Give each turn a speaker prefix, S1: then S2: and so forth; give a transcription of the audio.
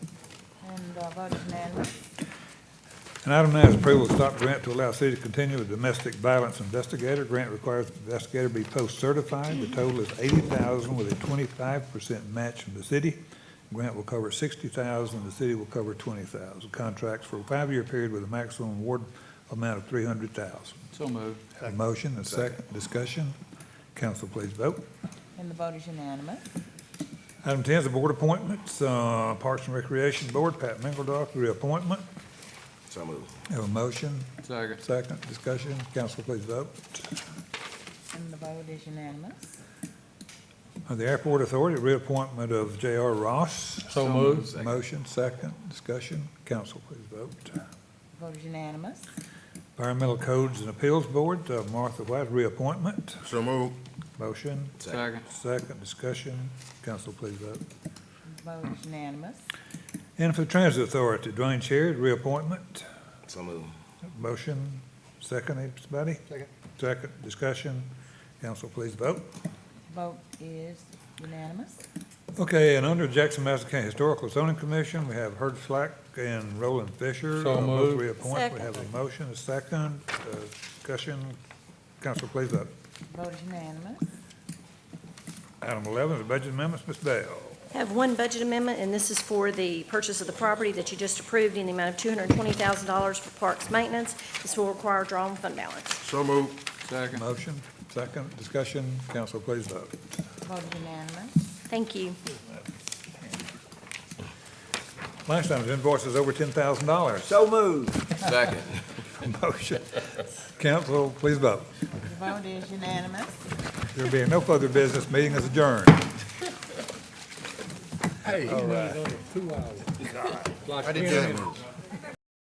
S1: and uh, vote is unanimous.
S2: And item nine is approval of stop grant to allow city to continue with domestic violence investigator. Grant requires the investigator be post-certified. The total is eighty thousand with a twenty-five percent match from the city. Grant will cover sixty thousand, the city will cover twenty thousand. Contracts for a five-year period with a maximum award amount of three hundred thousand.
S3: So moved.
S2: Have a motion, a second, discussion. Council, please vote.
S1: And the vote is unanimous.
S2: Item ten is the board appointments, uh, Parks and Recreation Board, Pat Mingledoff, reappointment.
S4: So moved.
S2: Have a motion,
S3: Second.
S2: second, discussion. Council, please vote.
S1: And the vote is unanimous.
S2: Uh, The Airport Authority, reappointment of J.R. Ross.
S3: So moved.
S2: Motion, second, discussion. Council, please vote.
S1: Vote is unanimous.
S2: Environmental Codes and Appeals Board, uh, Martha White, reappointment.
S4: So moved.
S2: Motion,
S3: Second.
S2: second, discussion. Council, please vote.
S1: Vote is unanimous.
S2: And for the Transit Authority, Dwayne Cherry, reappointment.
S4: So moved.
S2: Motion, second, anybody?
S4: Second.
S2: Second, discussion. Council, please vote.
S1: Vote is unanimous.
S2: Okay, and under Jackson Madison County Historical Zoning Commission, we have Herb Slack and Roland Fisher.
S3: So
S2: Uh, Both
S3: moved.
S2: reappoint. We
S1: Second.
S2: have a motion, a second, uh, discussion. Council, please vote.
S1: Vote is unanimous.
S2: Item 11 is budget amendments. Ms. Bell.
S5: Have one budget amendment, and this is for the purchase of the property that you just approved in the amount of $220,000 for parks maintenance. This will require a draw on fund balance.
S4: So moved.
S3: Second.
S2: Motion, second, discussion. Council, please vote.
S1: Vote is unanimous.
S5: Thank you.
S2: Last time, invoices over $10,000.
S4: So moved. Second.
S2: Motion. Council, please vote.
S1: The vote is unanimous.
S2: There being no further business, meeting is adjourned.
S4: I did that move.